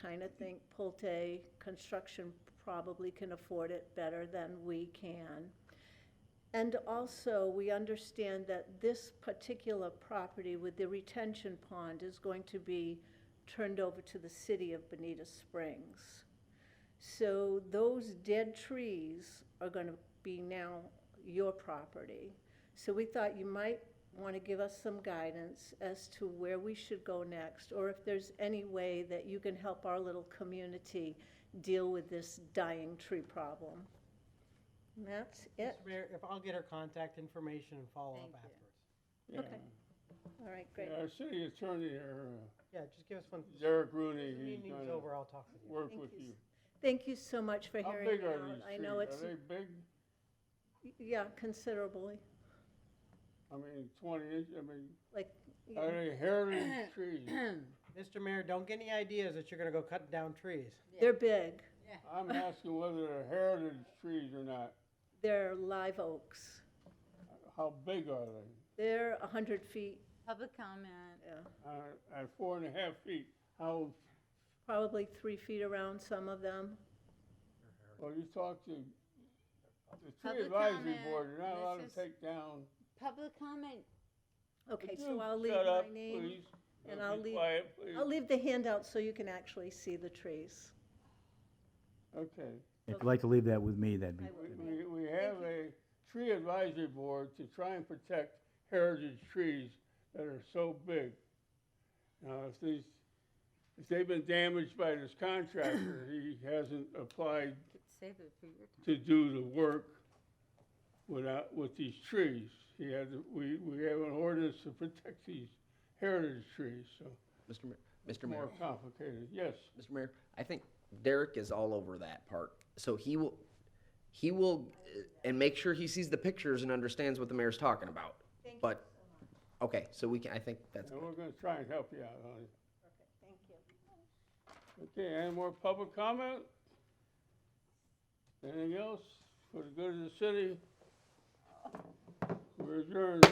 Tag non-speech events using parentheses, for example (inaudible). kind of think Pulte Construction probably can afford it better than we can. And also, we understand that this particular property with the retention pond is going to be turned over to the city of Bonita Springs. So those dead trees are gonna be now your property. So we thought you might wanna give us some guidance as to where we should go next, or if there's any way that you can help our little community deal with this dying tree problem. And that's it. Ms. Mayor, if I'll get her contact information and follow up Thank you. afterwards. Okay. All right, great. Our city attorney, or, Yeah, just give us one, uh, Derek Rooney, he's meeting's over, gonna I'll talk with you. work Thank with you. you. Thank you so much for How hearing big me are these out. I trees? know Are it's, they big? yeah, considerably, I mean, twenty inch, I mean, like, are yeah, they (coughs) heritage trees? Mr. Mayor, don't get any ideas that you're gonna go cutting down trees. they're big. I'm asking whether they're heritage trees or not. They're live oaks. How big are they? They're 100 feet, Public comment. yeah, Uh, At four and a half feet, how, probably three feet around, some of them. well, you talk to the tree Public advisory comment. board, you're not allowed to This is- take down. Public comment. Okay, Would so you I'll leave shut my up, name. please? and Be I'll leave- Quiet, please. I'll leave the handout so you can actually see the trees. Okay. If you'd like to leave that with me, that'd be, I will. We- We, we have a tree advisory board to try and protect heritage trees that are so big. Now, if these, if they've been damaged by this contractor, he hasn't applied Could save it for your time. to do the work without, with these trees. He had, to- we, we have an ordinance to protect these heritage trees, so Mr. Mayor, Mr. more Mayor, complicated, yes. Mr. Mayor, I think Derek is all over that part. So he will, he will, uh, and make sure he sees the pictures and understands what the mayor's talking about. Thank you But, okay, so we can, I think that's, And we're gonna try and help you out on it. Perfect, thank you. Okay, any more public comment? Anything else for the good of the city? We're adjourned.